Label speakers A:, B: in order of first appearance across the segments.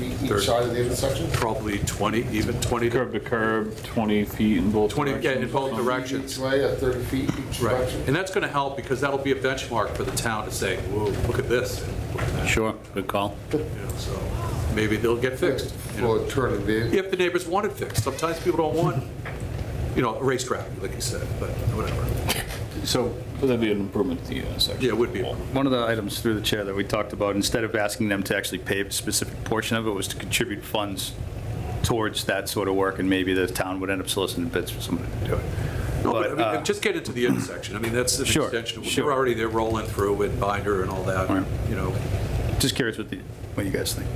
A: each side of the intersection?
B: probably 20, even 20,
C: Curb to curb, 20 feet in both
B: 20, yeah, in
C: directions.
B: both directions.
A: Each way, at 30 feet each
B: Right,
A: direction?
B: and that's going to help because that'll be a benchmark for the town to say, whoa, look at this, look at that,
D: Sure, good call.
B: you know, so maybe they'll get fixed. you know.
A: For turning vehicles?
B: If the neighbors want it fixed, sometimes people don't want, you know, a racetrack, like you said, but whatever.
C: So that'd be an improvement to the uh, intersection.
B: Yeah, it would be.
D: One of the items through the chair that we talked about, instead of asking them to actually pay a specific portion of it, was to contribute funds towards that sort of work, and maybe the town would end up soliciting bids for somebody to do it.
B: No,
D: But,
B: but I
D: uh,
B: mean, just get into the intersection, I mean, that's an
D: Sure,
B: extension, we are
D: sure.
B: already there rolling through with binder and all that,
D: Right.
B: you know.
D: Just curious what the, what you guys think.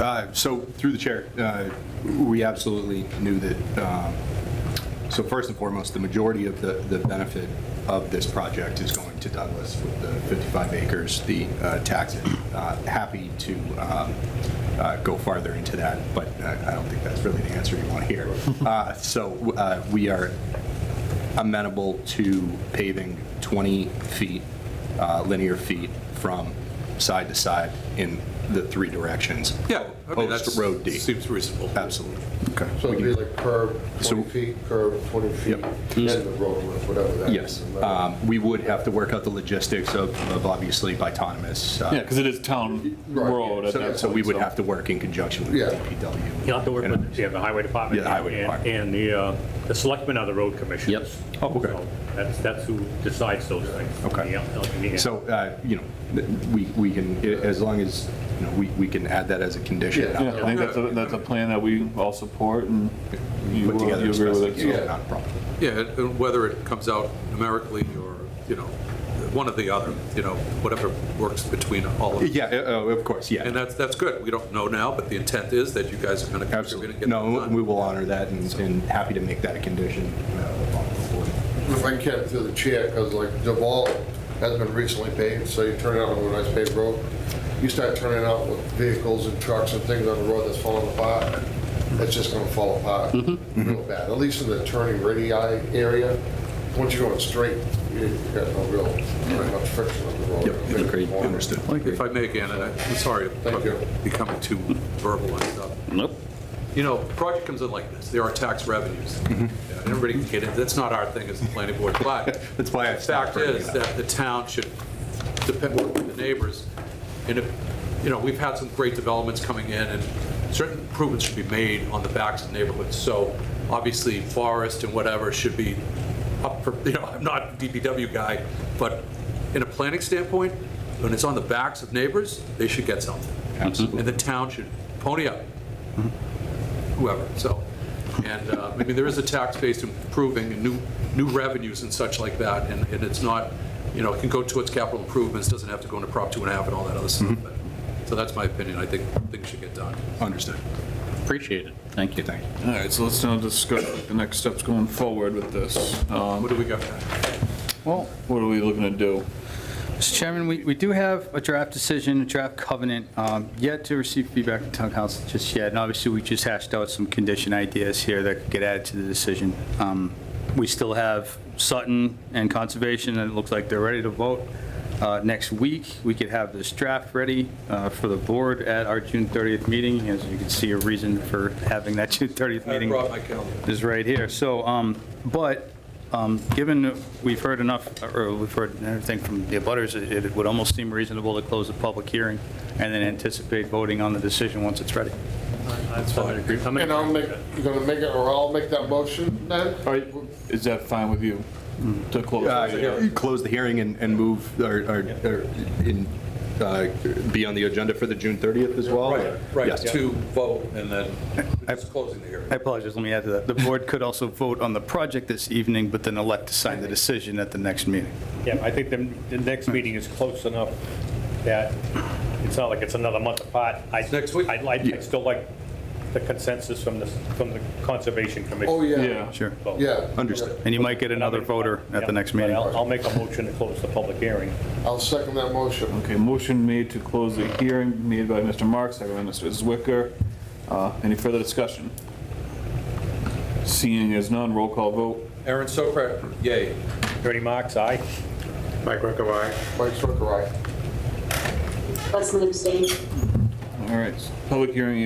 E: Uh, So, through the chair, uh, we absolutely knew that, um, so first and foremost, the majority of the the benefit of this project is going to Douglas with the 55 acres, the uh, tax. Uh, Happy to um, uh, go farther into that, but uh, I don't think that's really the answer you want to hear. Uh, So uh, we are amenable to paving 20 feet, uh, linear feet from side to side in the three directions.
B: Yeah, I mean, that's,
E: Post Road D.
B: seems reasonable.
E: Absolutely.
D: Okay.
A: So it'd be like curb 20
E: So-
A: feet, curb 20 feet,
E: Yep.
A: and the road width, whatever that is.
E: Yes. Um, We would have to work out the logistics of, of obviously bitonomous. uh,
C: Yeah, because it is town
A: Right, yeah.
C: road at that
E: So
C: point.
E: so we would have to work in conjunction with
A: Yeah.
E: DPW.
F: You'll have to work
E: And-
F: with, yeah, the highway department.
E: Yeah, the highway
F: and-
E: department.
F: And the, uh, the selectmen are the road commissioners. Yep.
E: Oh, okay.
F: That's, that's who decides those things.
E: Okay.
F: Yeah, yeah.
E: So, uh, you know, th- we, we can, i- as long as, you know, we, we can add that as a condition.
A: Yeah.
C: Yeah, I think that's a, that's a plan that we all support and you
E: Put
C: uh,
E: together.
C: you
E: as
C: agree
E: best
C: with
E: as
C: it.
E: we
C: so-
E: can, Not a problem.
B: Yeah, and whether it comes out numerically or, you know, one or the other, you know, whatever works between all of them.
E: Yeah, uh, oh, of course, yeah.
B: And that's, that's good. We don't know now, but the intent is that you guys are going to.
E: Absolutely. No, we will honor that and, and happy to make that a condition. uh, on the board.
A: If I can, through the chair, because like Duval has been recently paved, so you turn it out on a nice paved road. You start turning out with vehicles and trucks and things on the road that's falling apart, it's just gonna fall apart
E: Mm-hmm.
A: real bad, at least in the turning radii area. Once you're going straight, you you got no real, not much friction on the road. Big corner.
E: Understood.
B: If I may again, and I- I'm sorry,
A: Thank you.
B: if becoming too verbal and stuff.
D: Nope.
B: You know, project comes in like this, there are tax revenues.
E: Mm-hmm.
B: Yeah, Everybody can get it, that's not our thing as the planning board, but.
E: That's why I
B: The
E: stopped
B: fact
E: bringing
B: is
E: it up.
B: that the town should depend on the neighbors. And, if- you know, we've had some great developments coming in, and certain improvements should be made on the backs of neighborhoods. So obviously, forest and whatever should be up for, you know, I'm not a DPW guy, but in a planning standpoint, when it's on the backs of neighbors, they should get something.
E: Absolutely.
B: And the town should pony up, whoever, so. And, uh, I mean, there is a tax base improving and new, new revenues and such like that, and, and it's not, you know, it can go towards capital improvements, doesn't have to go into Prop two and a half and all that other stuff.
D: Mm-hmm.
B: but- So that's my opinion, I think things should get done.
E: Understood.
D: Appreciate it. Thank you. Thank you.
C: All right, so let's now discuss what the next steps going forward with this. Um,
B: What do we got?
D: Well,
C: What are we looking to do?
D: Mr. Chairman, we, we do have a draft decision, a draft covenant, um, yet to receive feedback from town council just yet. And obviously, we just hashed out some condition ideas here that could get added to the decision. Um, We still have Sutton and Conservation, and it looks like they're ready to vote uh, next week. We could have this draft ready uh, for the board at our June 30th meeting. As you can see, a reason for having that June 30th
B: I
D: meeting
B: brought my calendar.
D: is right here. So, um, but, um, given that we've heard enough, or we've heard everything from the abutters, it it would almost seem reasonable to close the public hearing and then anticipate voting on the decision once it's ready.
F: That's fine. I'm in
A: And I'll make,
F: agreement.
A: you're gonna make it, or I'll make that motion then?
C: All right, is that fine with you to close? the
E: Uh,
C: hearing?
E: Close the hearing and, and move, or, or, or in, uh, be on the agenda for the June 30th as well?
B: Right,
E: Yes.
B: to vote, and then just closing the hearing.
D: I apologize, let me add to that. The board could also vote on the project this evening, but then elect to sign the decision at the next meeting.
F: Yeah, I think the, the next meeting is close enough that it's not like it's another month apart. I-
B: Next week?
F: I'd like, I'd still like the consensus from the, from the Conservation Commission.
A: Oh, yeah,
C: Yeah.
D: Sure.
F: So-
A: yeah.
E: Understood.
D: And you might get another voter at the next meeting.
F: But I'll, I'll make a motion to close the public hearing.
A: I'll second that motion.
C: Okay, motion made to close the hearing made by Mr. Marks, second by Mr. Zwicker. Uh, Any further discussion? Seeing as none, roll call vote.
B: Aaron Sokrat, yay.
F: Attorney Marks, aye?
A: Mike Strucker, aye.
G: Leslie abstained.
C: All All right, public hearing